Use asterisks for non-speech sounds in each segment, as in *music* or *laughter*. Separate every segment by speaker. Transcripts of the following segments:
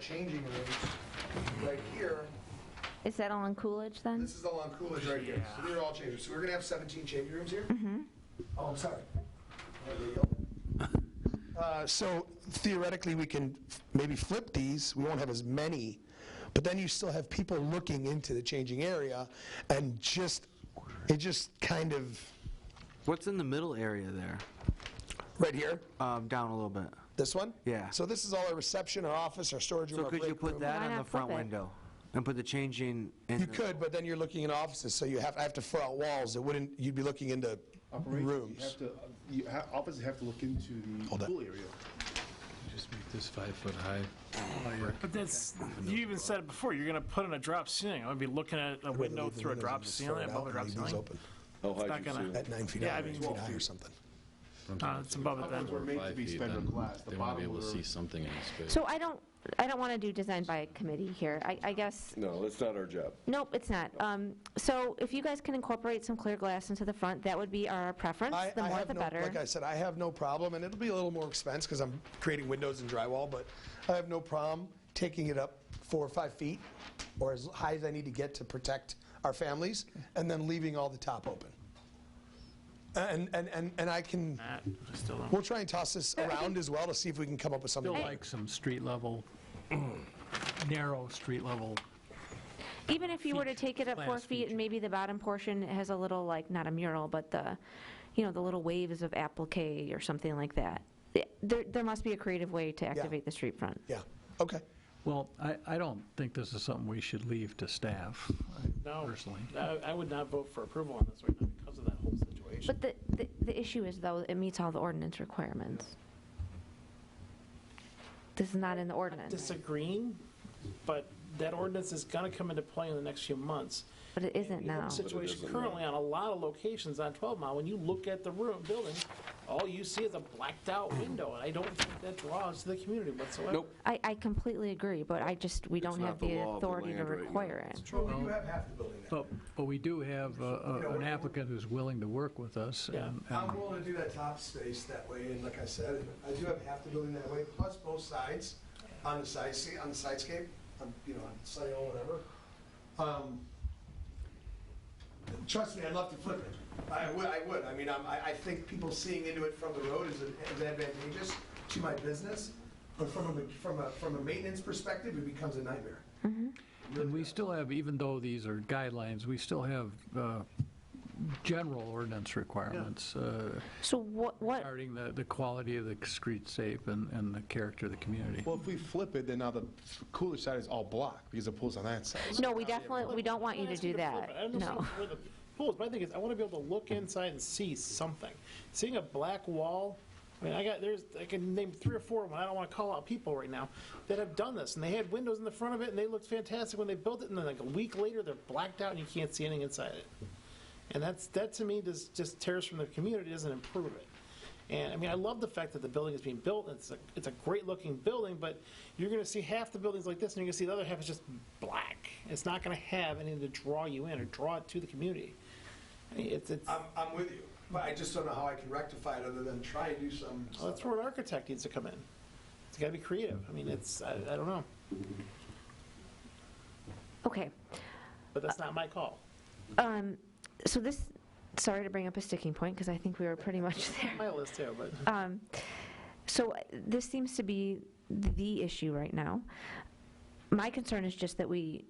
Speaker 1: changing rooms right here.
Speaker 2: Is that all in Coolidge then?
Speaker 1: This is all on Coolidge right here. So these are all changing. So we're gonna have 17 changing rooms here? Mm-hmm. Oh, I'm sorry. Oh, there you go.
Speaker 3: *laughs* Uh, So theoretically, we can f- maybe flip these, we won't have as many, but then you still have people looking into the changing area, and just, it just kind of,
Speaker 4: What's in the middle area there?
Speaker 3: right here,
Speaker 4: Um, down a little bit.
Speaker 3: this one?
Speaker 4: Yeah.
Speaker 3: So this is all our reception, our office, our storage room,
Speaker 4: So
Speaker 3: our
Speaker 4: could you
Speaker 3: break
Speaker 4: put
Speaker 3: room.
Speaker 4: that
Speaker 2: Why
Speaker 4: in the
Speaker 2: not
Speaker 4: front
Speaker 2: flip it?
Speaker 4: window and put the changing
Speaker 1: *laughs*
Speaker 4: in?
Speaker 3: You
Speaker 4: the-
Speaker 3: could, but then you're looking in offices, so you have, I have to fill out walls, it wouldn't, you'd be looking into
Speaker 5: Operations, You
Speaker 3: rooms.
Speaker 5: have to, you ha- officers have to look into
Speaker 3: Hold
Speaker 5: the
Speaker 3: on.
Speaker 5: pool area.
Speaker 6: Just make this five foot high.
Speaker 7: But that's, you even said it before, you're gonna put in a drop ceiling, I'm gonna be looking at a
Speaker 3: We're gonna
Speaker 7: window
Speaker 3: leave the
Speaker 7: through a
Speaker 3: windows
Speaker 7: drop
Speaker 3: and just fill
Speaker 7: ceiling,
Speaker 3: it out
Speaker 7: above a
Speaker 3: and
Speaker 7: drop
Speaker 3: leave these
Speaker 7: ceiling.
Speaker 3: open.
Speaker 8: How
Speaker 7: not
Speaker 8: high do Oh, you
Speaker 7: gonna-
Speaker 8: see it?
Speaker 3: At nine feet
Speaker 7: Yeah,
Speaker 3: high,
Speaker 7: I
Speaker 3: or
Speaker 7: mean,
Speaker 3: eight feet
Speaker 7: 12
Speaker 3: high or
Speaker 7: feet.
Speaker 3: something.
Speaker 7: Uh, it's above it then.
Speaker 5: We're made to
Speaker 6: Five
Speaker 5: be
Speaker 6: feet,
Speaker 5: spectrum
Speaker 6: then
Speaker 5: glass. The
Speaker 6: They won't be
Speaker 5: bottom
Speaker 6: able to
Speaker 5: were-
Speaker 6: see something in this space.
Speaker 2: So I don't, I don't want to do design by committee here. I, I guess,
Speaker 8: No, that's not our job.
Speaker 2: nope, it's not. Um, So if you guys can incorporate some clear glass into the front, that would be our preference.
Speaker 3: I-
Speaker 2: The
Speaker 3: I
Speaker 2: more,
Speaker 3: have
Speaker 2: the
Speaker 3: no-
Speaker 2: better.
Speaker 3: Like I said, I have no problem, and it'll be a little more expense because I'm creating windows and drywall, but I have no problem taking it up four or five feet or as high as I need to get to protect our families and then leaving all the top open. And, and, and, and I can,
Speaker 7: Nah, I still don't.
Speaker 3: we'll try and toss this around as well to see if we can come up with something.
Speaker 6: Still
Speaker 3: that-
Speaker 6: like some street level,
Speaker 9: *clears throat*
Speaker 6: narrow street level.
Speaker 2: Even if you were to take it up four
Speaker 6: glass
Speaker 2: feet, and
Speaker 6: feature.
Speaker 2: maybe the bottom portion has a little, like, not a mural, but the, you know, the little waves of applique or something like that. Th- There, there must be a creative way to activate the street front.
Speaker 3: Yeah, okay.
Speaker 9: Well, I, I don't think this is something we should leave to staff.
Speaker 7: No,
Speaker 9: Personally.
Speaker 7: I, I would not vote for approval on this right now because of that whole situation.
Speaker 2: But the, the- the issue is, though, it meets all the ordinance requirements. This is not in the ordinance,
Speaker 7: Disagreeing, but that ordinance is gonna come into play in the next few months.
Speaker 2: but it isn't
Speaker 7: You know,
Speaker 2: now.
Speaker 7: The situation
Speaker 8: isn't
Speaker 7: currently on a lot of locations on 12 Mile, when you look at the room, building, all you see is a blacked-out window, and I don't think that draws to the community whatsoever.
Speaker 8: Nope.
Speaker 2: I, I completely agree, but I just, we don't
Speaker 8: not
Speaker 2: have
Speaker 8: the
Speaker 2: the
Speaker 8: law of the
Speaker 2: authority to
Speaker 8: land right now.
Speaker 2: require it.
Speaker 1: Troy, you have half the building now.
Speaker 9: But, but we do have uh, uh, an applicant who's willing to work with us.
Speaker 7: Yeah.
Speaker 9: and- and-
Speaker 1: I'm willing to do that top space that way, and like I said, I do have half the building that way, plus both sides on the side, see, on the sidescape, on, you know, on sale, whatever. Um, Trust me, I'd love to flip it. I would, I would. I mean, I'm- I, I think people seeing into it from the road is an- is advantageous to my business, but from a, from a, from a maintenance perspective, it becomes a nightmare.
Speaker 9: And we still have, even though these are guidelines, we still have uh, general ordinance requirements uh,
Speaker 2: So what, what,
Speaker 9: regarding the, the quality of the street safe and, and the character of the community.
Speaker 5: Well, if we flip it, then now the cooler side is all blocked because the pool's on that side.
Speaker 2: no, we definitely, we don't want you
Speaker 7: I'm
Speaker 2: to
Speaker 7: not asking
Speaker 2: do
Speaker 7: flip it. I
Speaker 2: that,
Speaker 7: understand
Speaker 2: no.
Speaker 7: where the pool is. My thing is, I want to be able to look inside and see something. Seeing a black wall, I mean, I got, there's, I can name three or four of them, I don't want to call out people right now, that have done this, and they had windows in the front of it, and they looked fantastic when they built it, and then like a week later, they're blacked out and you can't see anything inside it. And that's, that to me, just, just tears from the community, doesn't improve it. And, I mean, I love the fact that the building is being built, and it's a, it's a great-looking building, but you're gonna see half the buildings like this, and you're gonna see the other half is just black. It's not gonna have anything to draw you in or draw it to the community. I mean, it's, it's,
Speaker 1: I'm, I'm with you, but I just don't know how I can rectify it other than try and do some.
Speaker 7: well, Oh, that's where an architect needs to come in. It's gotta be creative. I mean, it's, I, I don't know,
Speaker 2: Okay,
Speaker 7: but that's not my call.
Speaker 2: um, so this, sorry to bring up a sticking point, because I think we were pretty much there.
Speaker 7: My list too, but.
Speaker 2: Um, So uh, this seems to be the issue right now. My concern is just that we,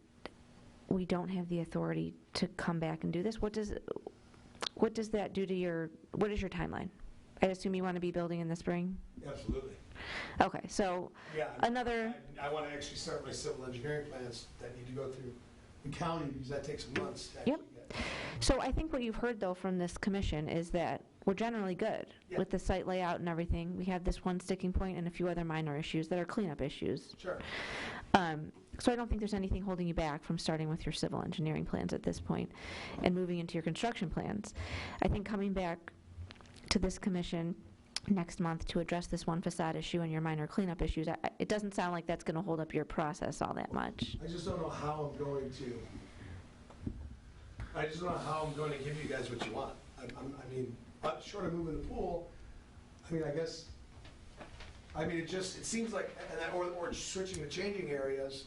Speaker 2: we don't have the authority to come back and do this. What does, what does that do to your, what is your timeline? I assume you want to be building in the spring?
Speaker 1: Absolutely.
Speaker 2: Okay, so
Speaker 1: Yeah.
Speaker 2: another,
Speaker 1: I want to actually start my civil engineering plans that need to go through the county because that takes months. to
Speaker 2: Yep.
Speaker 1: actually get.
Speaker 2: so I think what you've heard, though, from this commission is that we're generally good
Speaker 1: Yeah.
Speaker 2: with the site layout and everything. We have this one sticking point and a few other minor issues that are cleanup issues.
Speaker 1: Sure.
Speaker 2: Um, So I don't think there's anything holding you back from starting with your civil engineering plans at this point and moving into your construction plans. I think coming back to this commission next month to address this one facade issue and your minor cleanup issues, I- I- it doesn't sound like that's going to hold up your process all that much.
Speaker 1: I just don't know how I'm going to, I just don't know how I'm going to give you guys what you want. I, I'm- I mean, uh, short of moving the pool, I mean, I guess, I mean, it just, it seems like, and that, or, or switching the changing areas,